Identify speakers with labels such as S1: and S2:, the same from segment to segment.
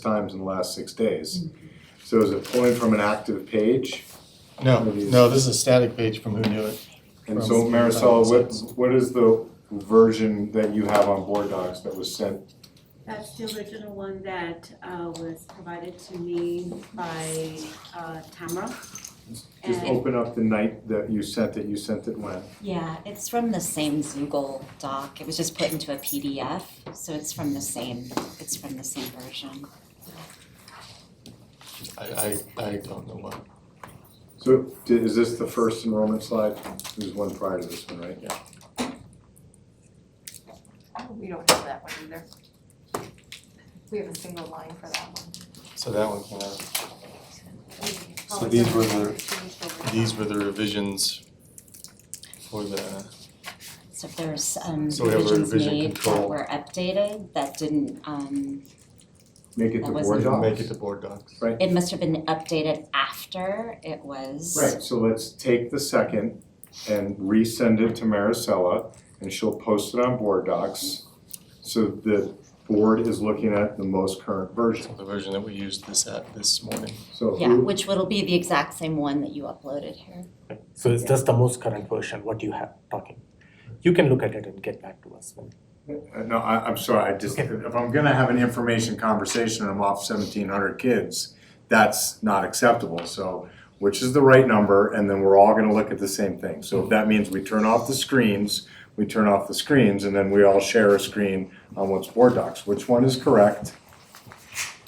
S1: times in the last six days.
S2: Mm-hmm.
S1: So is it pulling from an active page?
S3: No, no, this is a static page from Who Knew It.
S1: And
S3: From
S1: so Marisol, what,
S3: 2006.
S1: what is the version that you have on Board Docs that was sent?
S4: That's the original one that uh, was provided to me by uh, Tamara.
S2: Uh,
S1: Just oh.
S4: And-
S1: open up the night that you sent it, you sent it when?
S2: Yeah, it's from the same Google doc. It was just put into a PDF, so it's from the same, it's from the same version.
S3: I, I, I don't know what.
S1: So di- is this the first enrollment slide? There's one prior to this one, right?
S5: Oh, We don't have that one either. We have a single line for that one.
S3: So that one came out. So
S5: Oh,
S3: these were
S5: it's
S3: the,
S5: changed over
S3: these
S5: time.
S3: were the revisions for the,
S2: So if there's um
S3: So we have a
S2: revisions
S3: revision
S2: made that
S3: control.
S2: were updated, that didn't um,
S1: Make it
S2: That
S1: to Board
S2: wasn't-
S1: Docs.
S3: make it to board docs.
S2: it must have been updated after it was.
S1: Right, so let's take the second and resend it to Maricela, and she'll post it on Board Docs. So the board is looking at the most current version.
S3: So the version that we used this at this morning.
S1: So
S2: Yeah,
S1: who,
S2: which will be the exact same one that you uploaded here.
S6: So it's just the most current version, what you have talking. You can look at it and get back to us. when-
S1: uh, no, I, I'm sorry, I just,
S6: Okay.
S1: if I'm gonna have an information conversation and I'm off seventeen hundred kids, that's not acceptable, so which is the right number, and then we're all gonna look at the same thing. So if that means we turn off the screens, we turn off the screens, and then we all share a screen on what's Board Docs, which one is correct?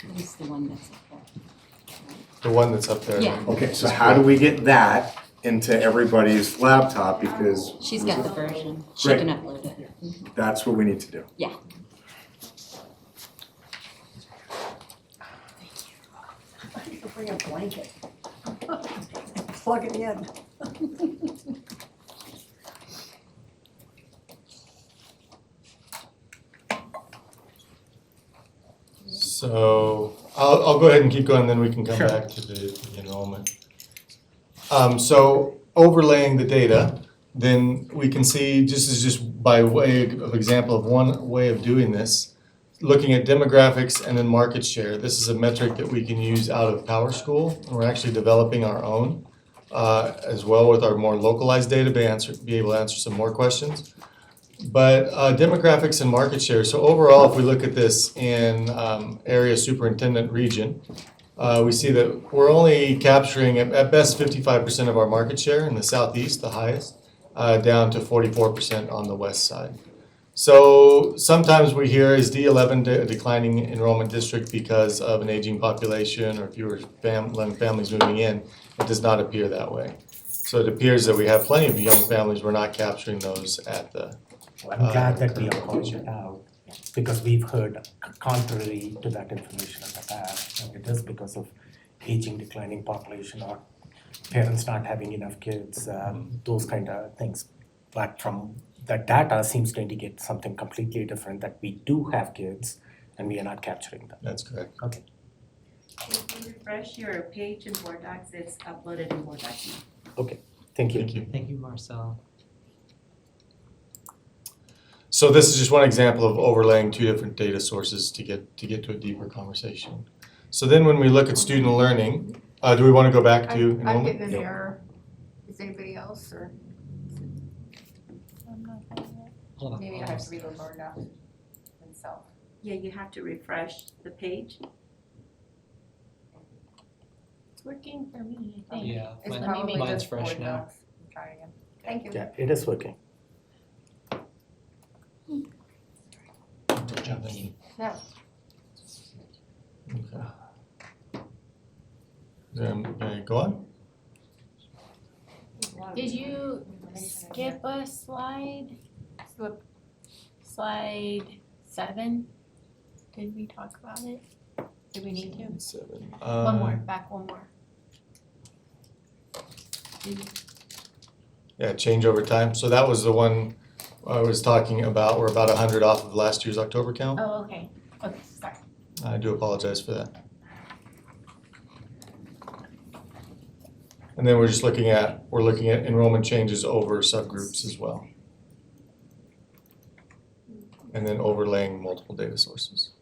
S2: What is the one that's up there?
S3: The one that's up there.
S2: Yeah.
S1: Okay, so how do we get that into everybody's laptop, because
S2: She's got the version. She
S1: Great.
S2: can upload it.
S1: that's what we need to do.
S2: Yeah.
S5: You could Bring a blanket. Plug it in.
S3: So I'll, I'll go ahead and keep going, then we can come
S6: Sure.
S3: back to the the enrollment. Um, so overlaying the data, then we can see, just is just by way of example of one way of doing this, looking at demographics and then market share. This is a metric that we can use out of Power School, and we're actually developing our own uh, as well with our more localized data, be answer, be able to answer some more questions. But uh, demographics and market share, so overall, if we look at this in um, area superintendent region, uh, we see that we're only capturing at at best fifty-five percent of our market share in the southeast, the highest, uh, down to forty-four percent on the west side. So sometimes we hear is D eleven a declining enrollment district because of an aging population or fewer fam- young families moving in? It does not appear that way. So it appears that we have plenty of young families, we're not capturing those at the
S6: I'm glad
S3: Uh,
S6: that we are calling
S3: location.
S6: it out, because we've heard contrary to that information in the past. And it is because of aging, declining population, or parents not having enough kids, um, those kind of things. But from the data seems to indicate something completely different, that we do have kids and we are not capturing them.
S3: That's correct.
S6: Okay.
S4: If you refresh your page in Board Docs, it's uploaded in Board Docs now.
S6: Thank you.
S3: Thank you.
S7: Thank you, Marcel.
S3: So this is just one example of overlaying two different data sources to get to get to a deeper conversation. So then when we look at student learning, uh, do we want to go back to
S5: I'm, I'm
S3: enrollment?
S5: getting an
S3: No.
S5: error. Is anybody else or?
S7: Hold on.
S5: Maybe I
S7: hold
S5: have
S7: on.
S5: to reload Word doc myself.
S4: Yeah, you have to refresh the page.
S5: It's working for me,
S7: think. Yeah,
S5: It's
S7: mine-
S5: probably
S7: mine's
S5: just
S7: fresh
S5: Word
S7: now.
S5: docs. Try again. Thank you.
S6: Yeah, it is working.
S3: Don't jump in.
S5: No.
S3: Okay. Then uh, go on.
S8: Did you skip a slide? Slip- Slide seven? Did we talk about it? Did we need to?
S3: Seven.
S8: One more,
S3: Um,
S8: back one more.
S3: Yeah, change over time. So that was the one I was talking about. We're about hundred off of last year's October count.
S8: Oh, okay, okay, sorry.
S3: I do apologize for that. And then we're just looking at, we're looking at enrollment changes over subgroups as well. And then overlaying multiple data sources.